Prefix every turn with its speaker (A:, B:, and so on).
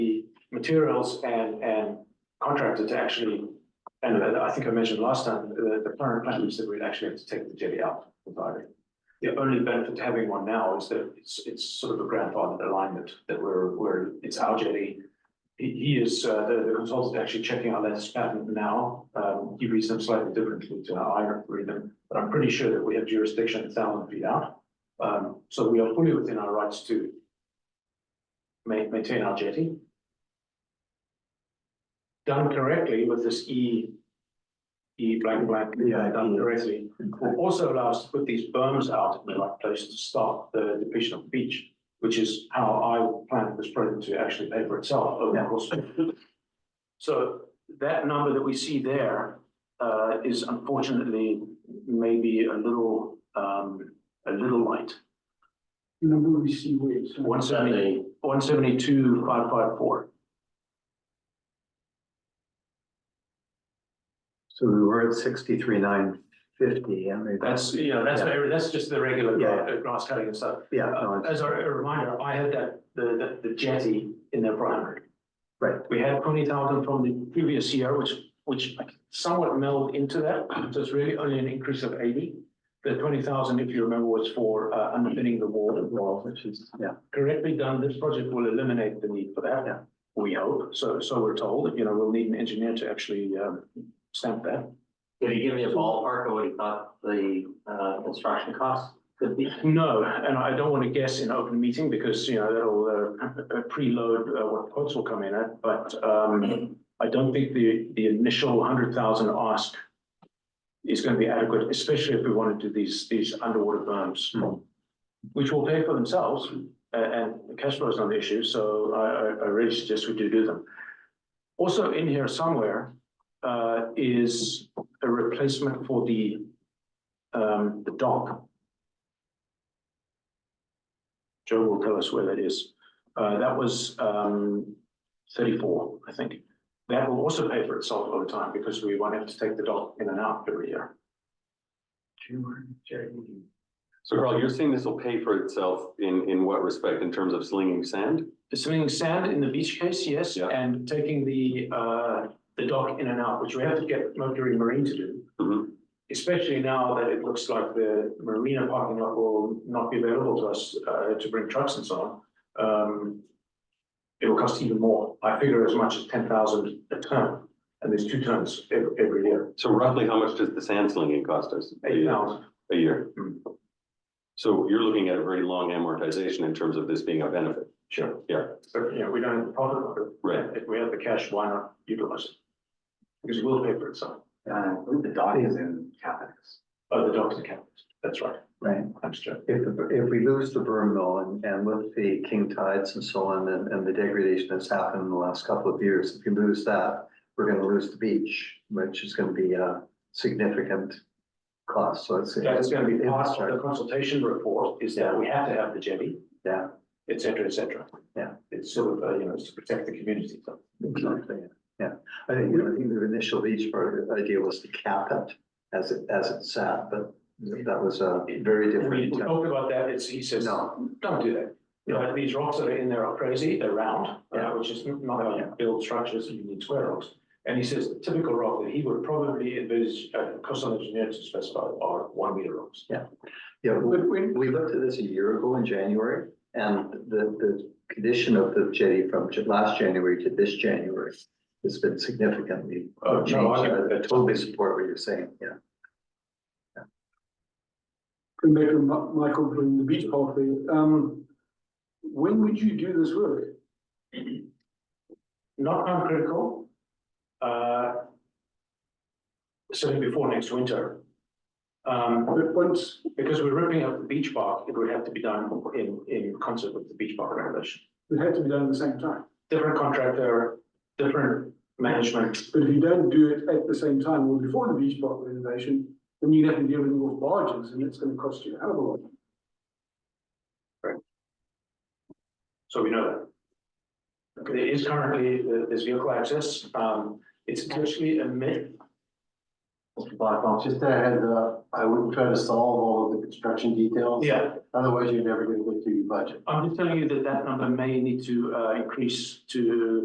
A: materials and, and contracted to actually, and I think I mentioned last time, the, the current plan is that we'd actually have to take the jetty out entirely. The only benefit to having one now is that it's, it's sort of a grandfathered alignment, that we're, we're, it's our jetty. He, he is, uh, the, the consultant actually checking our latest patent now, um, he reads them slightly differently to how I read them, but I'm pretty sure that we have jurisdiction a thousand feet out. Um, so we are fully within our rights to ma- maintain our jetty. Done correctly with this E, E blank blank, yeah, done correctly, will also allow us to put these berms out in the right place to start the depletion of beach, which is how I planned this project to actually pay for itself over the course. of- So that number that we see there, uh, is unfortunately maybe a little, um, a little light.
B: Number we see waves.
A: One seventy, one seventy-two, five five four.
C: So we were at sixty-three, nine fifty, I mean,
A: That's, you know, that's,
C: Yeah.
A: very- that's just the regular
C: Yeah,
A: gra- grass cutting and stuff.
C: yeah, no, it's-
A: As a a reminder, I had that, the, the the jetty in there for hundred.
C: Right.
A: We had twenty thousand from the previous year, which, which I somewhat melded into that, so it's really only an increase of eighty. The twenty thousand, if you remember, was for uh, underpinning the wall.
C: well, which is, yeah,
A: correctly done, this project will eliminate the need for that.
C: Yeah.
A: We hope, so, so we're told, you know, we'll need an engineer to actually, um, stamp that.
D: Can you give me a ballpark of what you thought the uh construction costs could be?
A: No, and I don't want to guess in open meeting because, you know, that'll, uh, preload uh, what quotes will come in at, but, um, I don't think the, the initial hundred thousand ask is going to be adequate, especially if we want to do these, these underwater berms,
C: Hmm.
A: which will pay for themselves, a- and the cash flow is not an issue, so I, I, I really suggest we do do them. Also in here somewhere, uh, is a replacement for the, um, the dock. Joe will tell us where that is. Uh, that was, um, thirty-four, I think. That will also pay for itself over time because we won't have to take the dog in and out every year.
D: Uh,
E: So Carl, you're saying this will pay for itself in, in what respect, in terms of slinging sand?
A: Swimming sand in the beach case, yes,
E: Yeah.
A: and taking the, uh, the dock in and out, which we have to get Mercury Marine to do.
E: Mhm.
A: Especially now that it looks like the marina parking lot will not be available to us, uh, to bring trucks and so on. Um, it'll cost even more. I figure as much as ten thousand a ton, and there's two tons every, every year,
E: So roughly, how much does the sand slinging cost us? a
A: eight
E: year?
A: thousand.
E: A year?
A: Mm.
E: So you're looking at a very long amortization in terms of this being a benefit.
A: Sure.
E: Yeah.
A: So, you know, we don't have the profit of it.
E: Right.
A: If we have the cash, why not utilize it? Because it will pay for itself.
C: uh,
D: The dock is in CapEx.
A: Oh, the dogs and cats, that's right,
C: right.
A: thanks, Joe.
C: If, the- if we lose the berm though, and, and with the king tides and so on, and, and the degradation that's happened in the last couple of years, if you lose that, we're gonna lose the beach, which is gonna be a significant cost, so it's.
A: That is gonna be part of the consultation report, is that we have to have the jetty,
C: Yeah,
A: et cetera, et cetera.
C: Yeah.
A: It's sort of, uh, you know, it's to protect the community, so.
C: exactly, yeah. yeah. I think, I think the initial beach part, the idea was to cap it as it, as it sat, but that was a very
A: And We
C: different.
A: we talked about that, it's, he says,
C: No.
A: don't do that. You know, these rocks that are in there are crazy, they're round, uh,
C: Yeah.
A: which is not how you build structures, you need square rocks. And he says the typical rock that he would probably envisage, uh, coastal engineer to specify are one meter rocks.
C: Yeah, we, we looked at this a year ago in January, and the, the condition of the jetty from j- last January to this January has been significantly
A: Oh, no,
C: changed.
A: I-
C: I totally support what you're saying, yeah.
B: Come back to Mi- Michael during the beach party. Um, when would you do this work?
A: not uncritical. Uh. Certainly before next winter. Um,
B: But once,
A: because we're ripping up the beach park, it would have to be done in, in concert with the beach park regulation.
B: it had to be done at the same time.
A: Different contractor, different management.
B: But if you don't do it at the same time or before the beach park renovation, then you'd have to deal with all barges and it's gonna cost you a hell of a lot.
A: So we know that. There is currently, there- there's vehicle access, um, it's actually a myth.
F: Mr. Blackwell, just a heads up, I wouldn't try to solve all of the construction details.
A: Yeah.
F: Otherwise, you're never gonna get to your budget.
A: I'm just telling you that that number may need to, uh, increase to